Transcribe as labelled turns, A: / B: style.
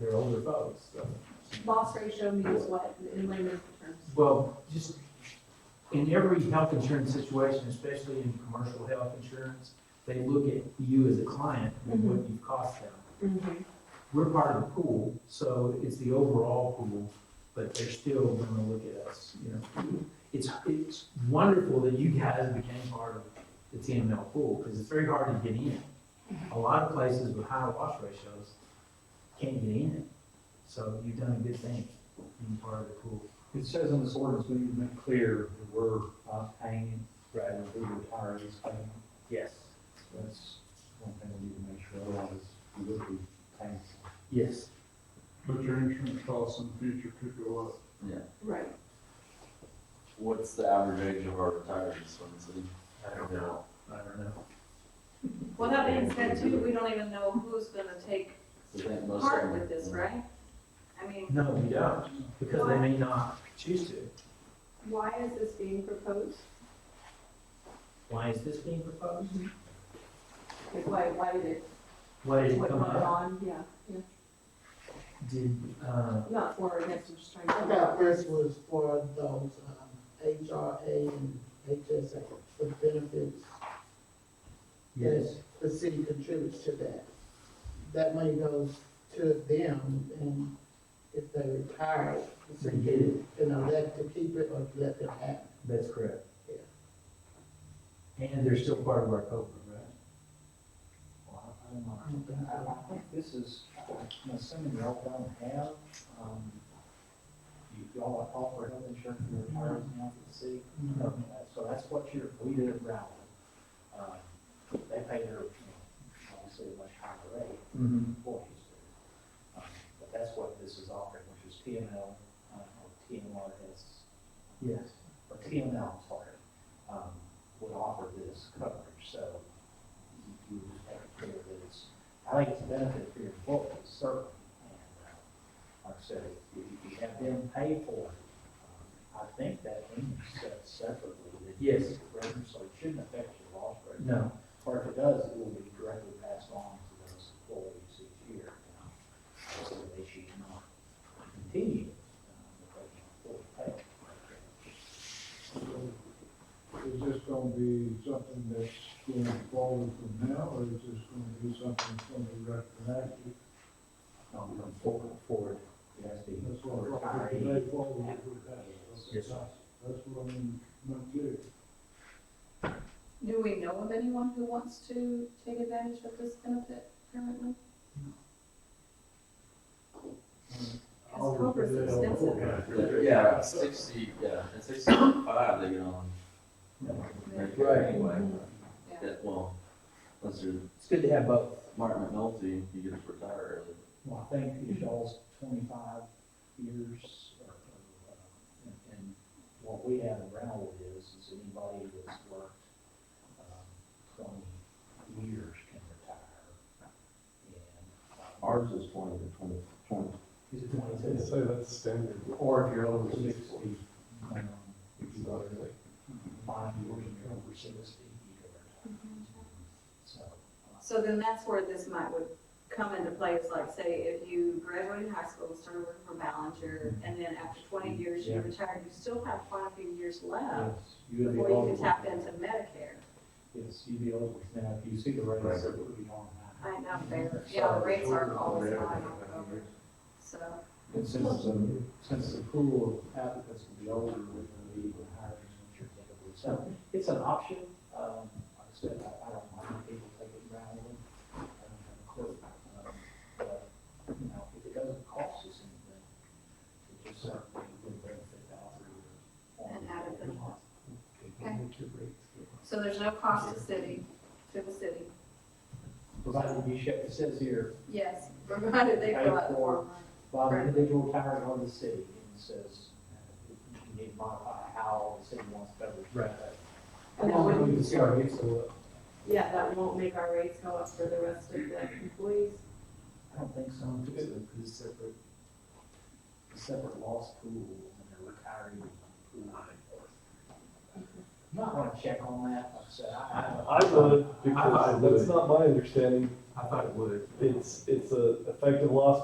A: above, so.
B: Loss ratio means what in layman's terms?
A: Well, just in every health insurance situation, especially in commercial health insurance, they look at you as a client and what you've cost them.
B: Mm-hmm.
A: We're part of the pool, so it's the overall pool, but they're still gonna look at us, you know. It's, it's wonderful that you guys became part of the TML pool, because it's very hard to get in. A lot of places with high loss ratios can't get in, so you've done a good thing being part of the pool.
C: It says in this ordinance, we need to make clear that we're not paying,
A: Right.
C: and the retirees paying.
A: Yes.
C: So That's one thing we need to make sure, otherwise we would be paying.
A: Yes.
D: But your insurance costs in the future could go up.
B: Right.
E: What's the average age of our retirees, Lindsay?
A: I don't know. I don't know.
B: Well, that being said too, we don't even know who's gonna take
E: I think most of
B: part
E: them-
B: with this, right? I mean,
A: No, we don't, because they may not choose to.
B: why is this being proposed?
A: Why is this being proposed?
B: Like, why, why did it,
A: Why did it
B: what
A: come
B: went
A: up?
B: on? Yeah, yeah.
A: Did, uh,
B: Not for or against, I'm just trying
F: I
B: to.
F: thought this was for those um, HRA and HSA, the benefits that
A: yes,
F: the city contributes to that. That money goes to them, and if they retire, the
A: They
F: city
A: get it.
F: can elect to keep it or let them have it.
A: that's correct.
F: Yeah.
A: And they're still part of our COBRA, right?
C: Well, I don't know. I think this is, I'm assuming y'all don't have, um, you- y'all offer health insurance for retirees now for the city.
F: Mhm.
C: Okay, So that's what your, we did at Rowland. Um, They pay their, you know, obviously a much higher rate
A: Mm-hmm.
C: than employees do. Um, But that's what this is offering, which is TML, uh, or TMRS,
A: Yes.
C: or TML, sorry, um, would offer this coverage, so you would just have to clear that it's, I think it's a benefit for your employees, certainly. And, uh, Like I said, if you- if you have them pay for it, um, I think that means set separately that you
A: Yes.
C: get the rate, so it shouldn't affect your loss rate.
A: No,
C: Or if it does, it will be directly passed on to those employees each year. you know, So they should not continue, uh, with that employee pay.
D: Is this gonna be something that's going forward from now, or is this gonna be something from the retroactive?
C: um, come forward, forward, it has to be
D: That's
C: for
D: what I'm talking
C: retiree.
D: today forward with that.
A: Yes, sir.
D: That's what I'm, not clear.
B: Do we know of anyone who wants to take advantage of this benefit currently? Because COBRA's extensive.
E: Yeah, sixty, yeah, at sixty-five, they get on. Medicare Anyway,
B: Yeah.
E: Yeah, well, unless you're
A: it's good to have both.
E: Martin McNulty, you get to retire early.
C: Well, I think if y'all's twenty-five years, or, or, uh, and, and what we have around is, is anybody that's worked, um, twenty years can retire. And uh,
E: Ours is twenty to twenty, twenty.
C: is it twenty-two?
G: So that's standard.
C: Or if you're
G: over
C: over sixty,
G: 60,
C: um,
G: It's not really.
C: five years and you're over sixty, you can retire. So, uh,
B: So then that's where this might would come into play, is like, say, if you graduated high school, started working for Ballinger, and then after twenty years you
C: Mm-hmm. Yeah.
B: retired, you still have quite a few years left,
C: yes, you would be
B: before you
C: eligible.
B: can tap into Medicare.
C: Yes, you'd be eligible. Now, if you see the rates, it would be on that.
B: I know, fair, yeah, the rates aren't always high, so,
C: And since the, since the pool of applicants will be older, we're gonna be even higher than typically. So it's an option. Um, like I said, I, I don't mind if people take it randomly. I don't have a clue. Um, But, you know, if it doesn't cost us anything, it just certainly would benefit the operator.
B: And added the cost. so there's no cost to city, to the city.
C: Provided you ship, it says here,
B: Yes, provided they fill out the form.
C: by the
B: Right.
C: individual towers on the city, and it says, uh, you need to modify how the city wants beverage.
A: Right.
B: And that wouldn't-
A: We can see our rates go up.
B: Yeah, that won't make our rates go up for the rest of the employees.
C: I don't think so,
A: Um,
C: it's
A: it's separate.
C: a separate loss pool, and they're retiring pool. Might wanna check on that, like I said, I.
G: I would,
A: I
G: because
A: would.
G: that's not my understanding.
A: I thought it would.
G: It's, it's a effective loss